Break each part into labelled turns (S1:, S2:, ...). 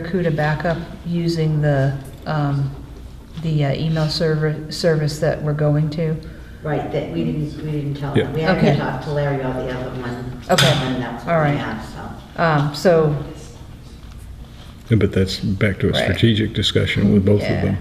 S1: Barracuda backup using the, um, the uh, email server, service that we're going to?
S2: Right, that we didn't, we didn't tell
S3: Yeah.
S2: them. We haven't
S1: Okay.
S2: talked to Larry or the other one.
S1: Okay.
S2: And that's
S1: All
S2: what we
S1: right.
S2: have, so.
S1: Um, so,
S3: Yeah, But that's back to a
S1: Right.
S3: strategic discussion with both of
S1: Yeah.
S3: them.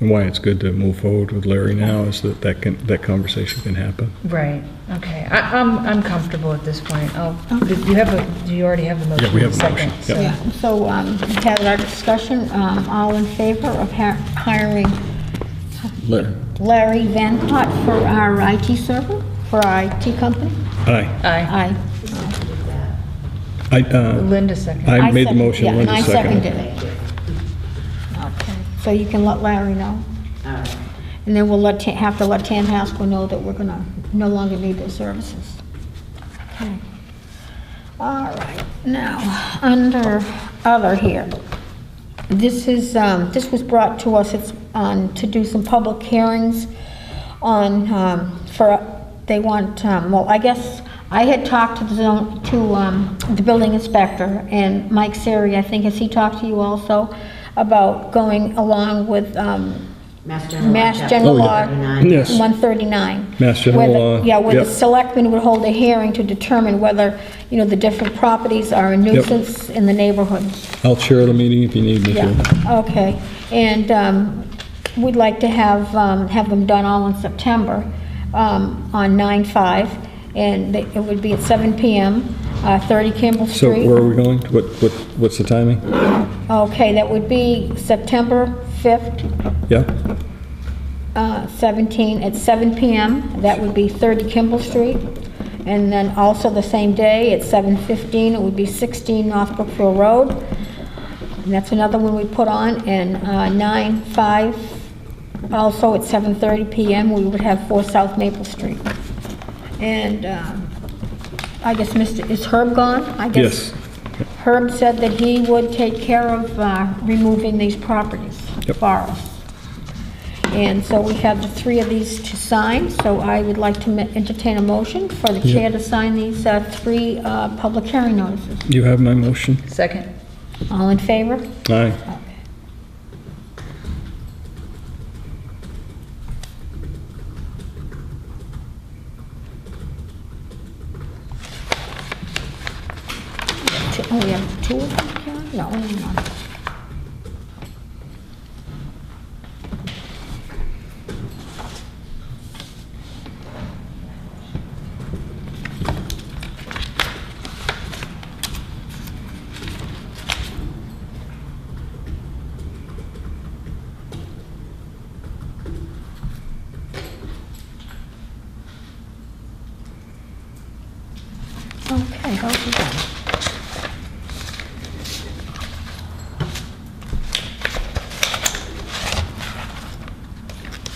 S3: And why it's good to move forward with Larry now is that that can, that conversation can happen.
S1: right, okay. I, I'm, I'm comfortable at this point. I'll, do you have a, do you already have the motion?
S3: Yeah, we have a
S1: Second,
S3: motion, yeah.
S1: so-
S4: Yeah, so um, we had our discussion, um, all in favor of hi- hiring
S3: Larry?
S4: Larry Van Hot for our IT server, for our IT company?
S3: Aye.
S1: Aye.
S4: Aye.
S3: I, uh,
S1: Linda second.
S3: I made the
S4: second- yeah,
S3: motion,
S4: and
S3: Linda
S4: I
S3: seconded.
S4: seconded it.
S2: Thank you.
S4: Okay, so you can let Larry know,
S2: All right.
S4: and then we'll let, Ta- have to let Tan Haskell know that we're gonna no longer need their services. Okay. All right, now, under other here, this is, um, this was brought to us, it's on, to do some public hearings on, um, for, they want, um, well, I guess, I had talked to the zone, to, um, the building inspector, and Mike Siri, I think, has he talked to you also, about going along with, um,
S2: Mass General.
S4: Mass
S2: Chapter
S4: General
S3: yeah.
S4: Law
S2: 39.
S3: Yes.
S4: 139.
S3: Mass General
S4: Whether-
S3: Law,
S4: Yeah, where the
S3: yep.
S4: selectmen would hold a hearing to determine whether, you know, the different properties are a nuisance in the neighborhoods.
S3: I'll chair the meeting if you need me to.
S4: Yeah, okay. And um, we'd like to have, um, have them done all in September um, on 9/5, and they- it would be at 7 PM, uh, 30 Kimball
S3: So
S4: Street.
S3: where are we going? What, what, what's the timing?
S4: Okay, that would be September 5th,
S3: Yeah?
S4: uh, 17, at 7 PM. That would be 30 Kimball Street. And then also the same day, at 7:15, it would be 16 North Brookfield Road. And that's another one we put on. And uh, 9/5, also at 7:30 PM, we would have 4 South Maple Street. And um, I guess Mr., is Herb gone? I guess
S3: Yes.
S4: Herb said that he would take care of uh, removing these properties
S3: Yep.
S4: for us. And so we have the three of these to sign, so I would like to ma- entertain a motion for the chair to sign these uh, three uh, public hearing notices.
S3: You have my motion?
S1: Second.
S4: All in favor?
S3: Aye.
S4: Two- Oh, we have two of them, Karen? No, only one. Okay, hold it down.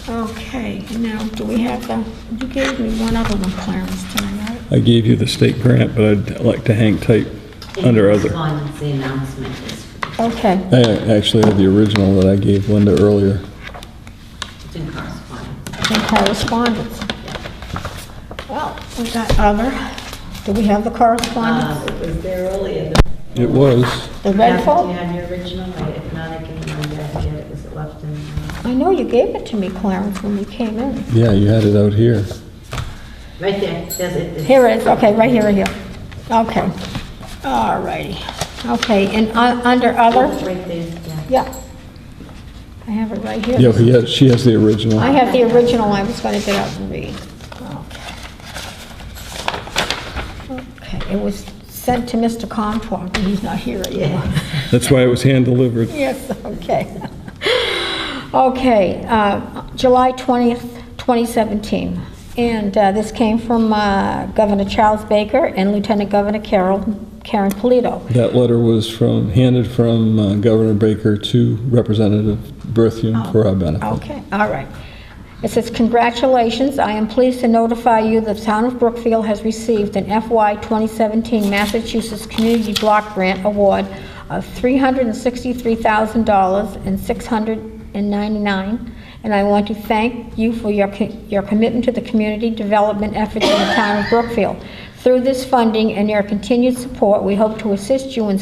S4: Okay, now, do we have the, you gave me one other one, Clarence, tonight, right?
S3: I gave you the state grant, but I'd like to hang tight under other.
S2: Correspondence, the announcement is
S4: Okay,
S3: I actually have the original that I gave Linda earlier.
S2: it's in correspondence.
S4: and correspondence. Well, we got other, do we have the correspondence?
S2: Uh, it was there earlier.
S3: It was.
S4: The
S2: Yeah,
S4: red
S2: Do you
S4: folder?
S2: have your original? Or If not, I can run back and get it. Was it left in? uh,
S4: I know you gave it to me, Clarence, when we came in.
S3: Yeah, you had it out here.
S2: Right there. There's it. It's-
S4: Here it is, okay, right here, right here. Okay, all righty. Okay, and un- under
S2: Oh,
S4: other,
S2: Right there, yeah.
S4: yeah. I have it right here.
S3: Yeah, he has, she has the original.
S4: I have the original, I was gonna get out and read. Okay, it was sent to Mr. Comfort, and he's not here anymore.
S3: That's why it was hand-delivered.
S4: Yes, okay. Okay, uh, July 20th, 2017, and uh, this came from uh, Governor Charles Baker and Lieutenant Governor Carol, Karen Polito.
S3: That letter was from, handed from uh, Governor Baker to Representative Berthium for our benefit.
S4: Okay, all right. It says, "Congratulations, I am pleased to notify you the town of Brookfield has received an FY 2017 Massachusetts Community Block Grant Award of $363,000 and 699 and I want to thank you for your co- your commitment to the community development efforts in the town of Brookfield. Through this funding and your continued support, we hope to assist you in